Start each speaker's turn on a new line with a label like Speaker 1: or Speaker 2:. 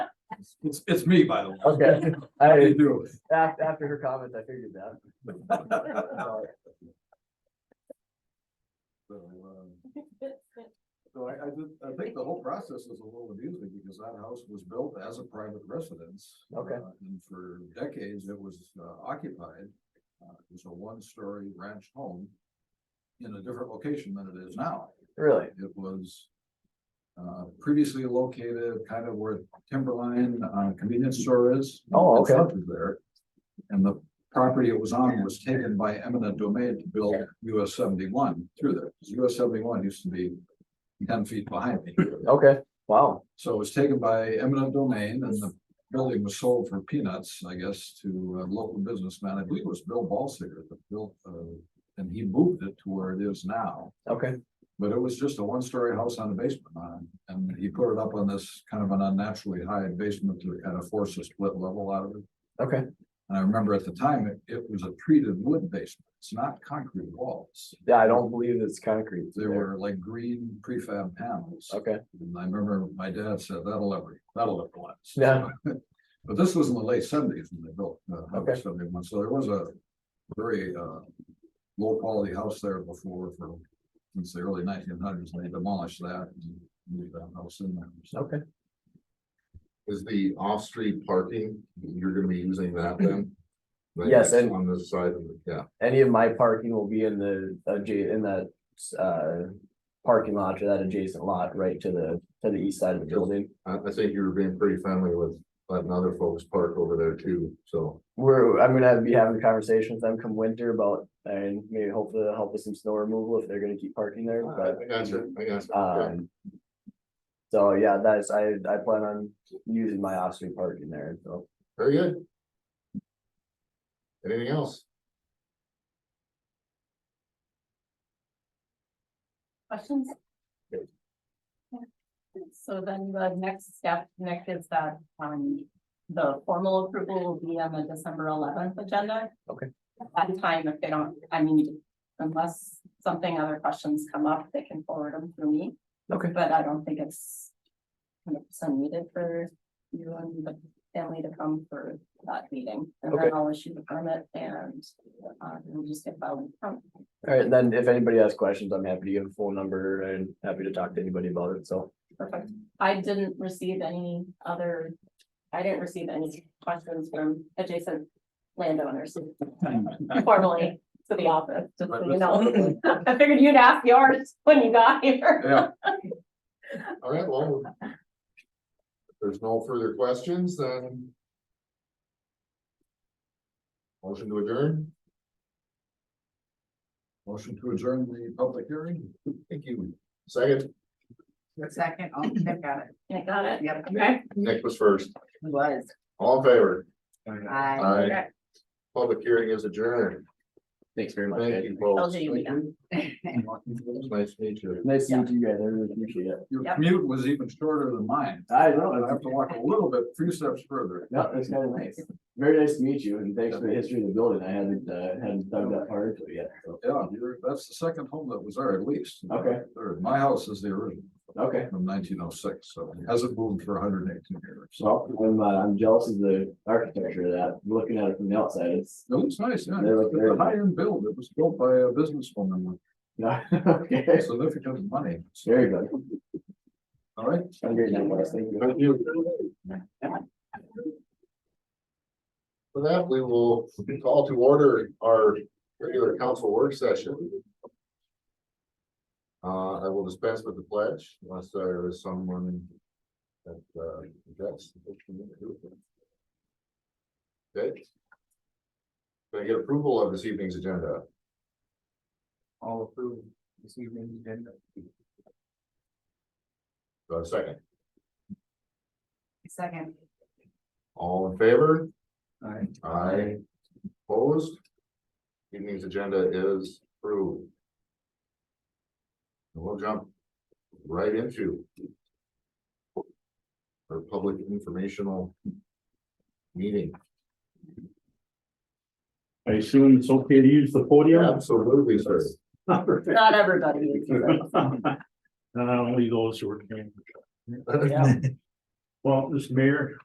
Speaker 1: It's, it's me, by the way.
Speaker 2: Okay,
Speaker 1: How you
Speaker 2: I,
Speaker 1: doing?
Speaker 2: after, after her comments, I figured that.
Speaker 1: So, um, so I, I just, I think the whole process is a little amusing because that house was built as a private residence.
Speaker 2: Okay.
Speaker 1: uh, And for decades, it was uh, occupied. Uh, it was a one-story ranch home in a different location than it is now.
Speaker 2: Really?
Speaker 1: It was uh, previously located kind of where Timberline uh, convenience store is.
Speaker 2: Oh, okay.
Speaker 1: It's up There. And the property it was on was taken by eminent domain to build US seventy-one through there. 'Cause US seventy-one used to be ten feet behind me.
Speaker 2: Okay, wow.
Speaker 1: So it was taken by eminent domain and the building was sold for peanuts, I guess, to a local businessman. I believe it was Bill Balsiger that built, uh, and he moved it to where it is now.
Speaker 2: Okay,
Speaker 1: But it was just a one-story house on a basement on, and he put it up on this kind of an unnaturally high basement to kind of force a split level out of it.
Speaker 2: okay.
Speaker 1: And I remember at the time, it, it was a treated wood basement. It's not concrete walls.
Speaker 2: Yeah, I don't believe it's concrete.
Speaker 1: They were like green prefab panels.
Speaker 2: Okay,
Speaker 1: And I remember my dad said, that'll ever, that'll ever last.
Speaker 2: Yeah.
Speaker 1: But this was in the late seventies when they built, uh,
Speaker 2: Okay.
Speaker 1: Highway seventy-one, so there was a very, uh, low-quality house there before for, since the early nineteen hundreds, they demolished that and moved that house in there. So
Speaker 2: okay.
Speaker 3: Is the off-street parking, you're gonna be using that then? Like,
Speaker 2: Yes,
Speaker 3: that's
Speaker 2: and-
Speaker 3: On this side of the, yeah,
Speaker 2: Any of my parking will be in the, adja- in that, uh, parking lot or that adjacent lot right to the, to the east side of the building.
Speaker 3: I, I think you were being pretty friendly with letting other folks park over there too, so.
Speaker 2: We're, I'm gonna have- be having a conversation with them come winter about, and maybe hopefully they'll help with some snow removal if they're gonna keep parking there, but.
Speaker 3: I got you, I got you. yeah.
Speaker 2: Um. So yeah, that is, I, I plan on using my off-street parking there, so.
Speaker 3: Very good. Anything else?
Speaker 4: Questions?
Speaker 3: Good.
Speaker 4: So then the next step, Nick, is that, um, the formal approval will be on the December eleventh agenda.
Speaker 2: Okay.
Speaker 4: At the time, if they don't, I mean, unless something, other questions come up, they can forward them through me,
Speaker 2: Okay.
Speaker 4: but I don't think it's hundred percent needed for you and the family to come for that meeting. And
Speaker 2: Okay.
Speaker 4: then I'll issue the permit and, uh, we'll just get filed. in front.
Speaker 2: Alright, then if anybody has questions, I'm happy to give a phone number and happy to talk to anybody about it, so.
Speaker 4: Perfect. I didn't receive any other, I didn't receive any questions from adjacent landowners formally to the office, just so you know. I figured you'd ask yours when you got here.
Speaker 1: Yeah,
Speaker 3: All right, well. if There's no further questions, then. Motion to adjourn?
Speaker 1: motion to adjourn the public hearing. Thank you.
Speaker 3: Second,
Speaker 5: Second, oh, Nick got it.
Speaker 4: I got it.
Speaker 5: Yep,
Speaker 4: Okay.
Speaker 3: Nick was first.
Speaker 5: was.
Speaker 3: All in favor?
Speaker 5: I.
Speaker 3: Aye.
Speaker 4: Okay.
Speaker 3: Public hearing is adjourned.
Speaker 2: Thanks very much.
Speaker 3: Thank
Speaker 2: guys.
Speaker 3: you
Speaker 4: Told
Speaker 3: both.
Speaker 4: you you'd be done.
Speaker 3: It's nice to meet you.
Speaker 2: Nice to meet you guys, I really appreciate it.
Speaker 1: Your
Speaker 4: Yep.
Speaker 1: commute was even shorter than mine.
Speaker 2: I
Speaker 1: I have to walk a little bit, few steps further.
Speaker 2: Yeah, that's kinda nice. Very nice to meet you and thanks for the history of the building. I hadn't, uh, hadn't dug that far into it yet, so.
Speaker 1: Yeah, you're, that's the second home that was there at least.
Speaker 2: Okay.
Speaker 1: Third. My house is the original.
Speaker 2: Okay,
Speaker 1: from nineteen oh six, so it hasn't moved for hundred and eighteen years. So
Speaker 2: so I'm, uh, I'm jealous of the architecture of that. Looking at it from the outside, it's.
Speaker 1: it looks nice, yeah.
Speaker 2: They're-
Speaker 1: It's a
Speaker 2: they're-
Speaker 1: high-end build. It was built by a businesswoman with
Speaker 2: Yeah, okay.
Speaker 1: significant money. So,
Speaker 2: Very good.
Speaker 1: All right.
Speaker 2: I'm great, now, Wes. Thank you.
Speaker 3: Thank you. For that, we will call to order our regular council work session. Uh, I will dispense with the pledge unless there is someone that, uh, objects. Okay. Can I get approval of this evening's agenda?
Speaker 6: all approved this evening's agenda.
Speaker 3: Do I have a second?
Speaker 5: Second.
Speaker 3: All in favor?
Speaker 6: Aye.
Speaker 3: Aye. Opposed? Evening's agenda is approved. And We'll jump right into our public informational meeting.
Speaker 7: I assume it's okay to use the podium?
Speaker 3: Absolutely, sir.
Speaker 7: Perfect.
Speaker 4: Not everybody. is here.
Speaker 7: Uh, Not only those who are. here.
Speaker 4: Yeah.
Speaker 7: Well, Mr. Mayor,